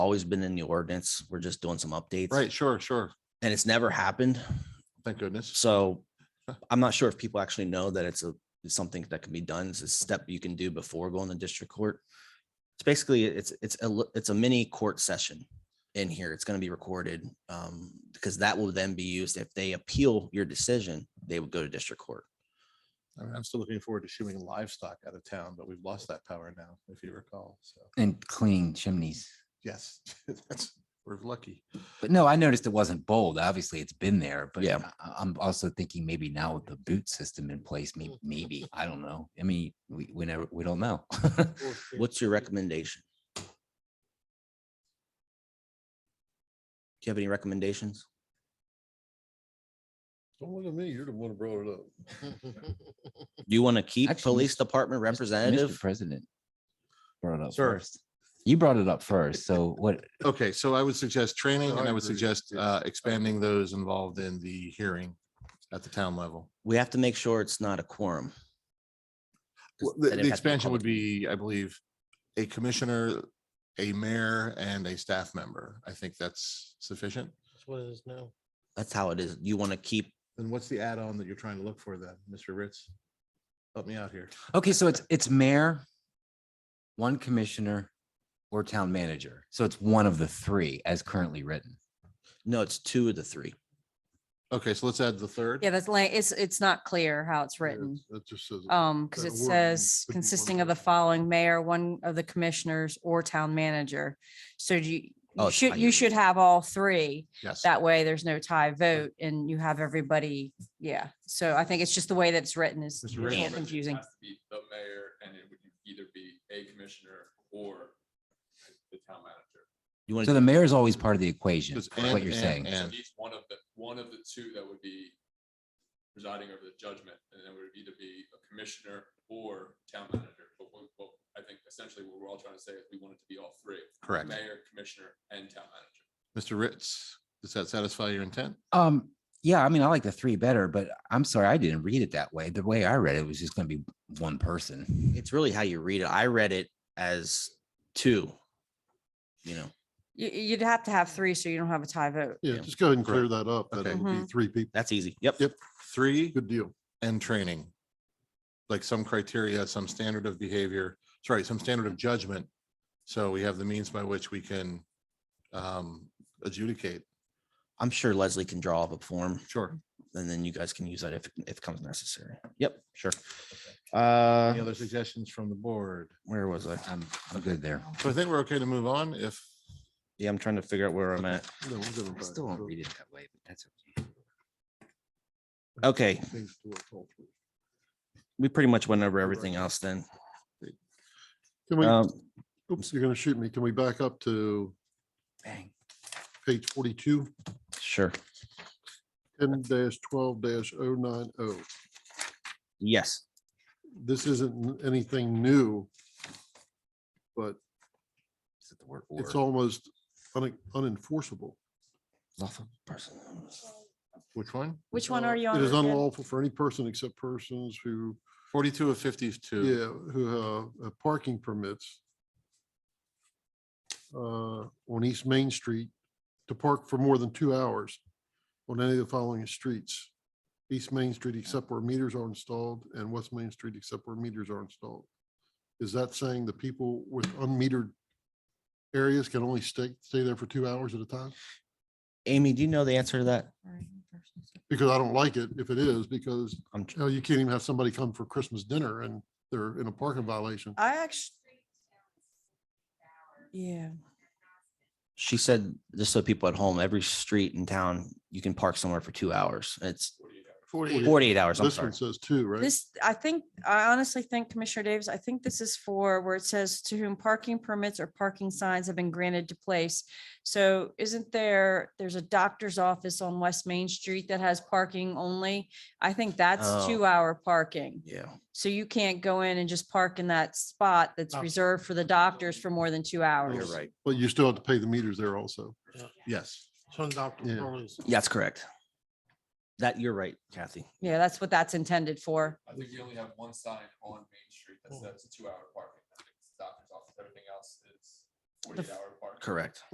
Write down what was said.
always been in the ordinance. We're just doing some updates. Right, sure, sure. And it's never happened. Thank goodness. So I'm not sure if people actually know that it's a, it's something that can be done. It's a step you can do before going to district court. It's basically, it's, it's, a li- it's a mini court session in here. It's going to be recorded. Um, because that will then be used if they appeal your decision, they would go to district court. I mean, I'm still looking forward to shooting livestock out of town, but we've lost that power now, if you recall. So, and clean chimneys. yes, that's, we're lucky. But no, I noticed it wasn't bold. Obviously, it's been there, but Yeah. I- I'm also thinking maybe now with the boot system in place, maybe, maybe, I don't know. I mean, we, we never, we don't know. What's your recommendation? Do you have any recommendations? Don't look at me. You're the one who brought it up. Do you want to keep Actually, police Mr. department Mr. representative? President brought it up Sir. first. You brought it up first, so what, Okay, so I would suggest training No, and I I would agree. suggest Yeah. uh, expanding those involved in the hearing at the town level. We have to make sure it's not a quorum. 'Cause Well, The then the it'd have to be a expansion would public- be, I believe, a commissioner, a mayor, and a staff member. I think that's sufficient. That's what it is now. That's how it is. You want to keep, And what's the add-on that you're trying to look for then, Mr. Ritz? Help me out here. okay, so it's, it's mayor, one commissioner, or town manager. So it's one of the three as currently written. no, it's two of the three. Okay, so let's add the third. Yeah, that's like, it's, it's not clear how it's written. Um, because that it wording says could be one consisting of the person. following mayor, one of the commissioners or town manager. So do you, Oh, you it's should, tie you in. should have all three. Yes. That way there's no tie vote and you have everybody. Yeah. So I think it's just the way that it's written is Mr. is Rick? kind of confusing. It has to be The mayor, and it would either be a commissioner or the town manager. You want So to, the mayor is always part of the equation, Just is what and- you're and- saying. and. So each one of the, one of the two that would be presiding over the judgment, and it would either be a commissioner or town manager. But what, what, I think essentially what we're all trying to say is we want it to be all three. Correct. Mayor, commissioner, and town manager. Mr. Ritz, does that satisfy your intent? Um, yeah, I mean, I like the three better, but I'm sorry, I didn't read it that way. The way I read it was just gonna be one person. it's really how you read it. I read it as two. You know, You, you'd have to have three so you don't have a tie vote. Yeah, Yeah. just go ahead and clear that up. That Okay. it would Mm-hmm. be three people. that's easy. Yep. Yep. Three Good deal. and training. Like some criteria, some standard of behavior, sorry, some standard of judgment. So we have the means by which we can um adjudicate. I'm sure Leslie can draw up a form Sure. and then you guys can use that if, if it comes necessary. Yep, sure. Any Uh, other suggestions from the board? where was I? I'm, I'm good there. So I think we're okay to move on if. Yeah, I'm trying to figure out where I'm at. No, we'll give it I back. still won't So, read it that way, but that's okay. Okay, things to work all through. we pretty much went over everything else then. Can Um, we, oops, you're gonna shoot me. Can we back up to Bang. page forty-two, sure. ten dash twelve dash oh nine oh? Yes. This isn't anything new, but Is it the word it's or? almost un- unenforceable. Lawful person. Which one? Which one are you on? Uh, It is again? unlawful for any person except persons who Forty-two of fifty-two. Yeah, who have uh, parking permits uh, on East Main Street to park for more than two hours on any of the following streets. East Main Street except where meters are installed and West Main Street except where meters are installed. Is that saying the people with unmetered areas can only stay, stay there for two hours at a time? Amy, do you know the answer to that? Because I don't like it if it is, because I'm, you know, you can't even have somebody come for Christmas dinner and they're in a parking violation. I actually. Yeah. she said, just so people at home, every street in town, you can park somewhere for two hours. It's forty-eight hours, I'm This sorry. one says two, right? This, I think, I honestly think Commissioner Davis, I think this is for where it says to whom parking permits or parking signs have been granted to place. So isn't there, there's a doctor's office on West Main Street that has parking only? I Oh. think that's two hour parking. Yeah, So you can't go in and just park in that spot that's Oh. reserved for the doctors for more than two you're hours. right. But you still have to pay the meters there also. Yes. Yeah. That's correct. That, you're right, Kathy. Yeah, that's what that's intended for. I think we only have one sign on Main Street that says two-hour parking. I think it's Doctor's office, everything else is forty-eight-hour parking. Correct.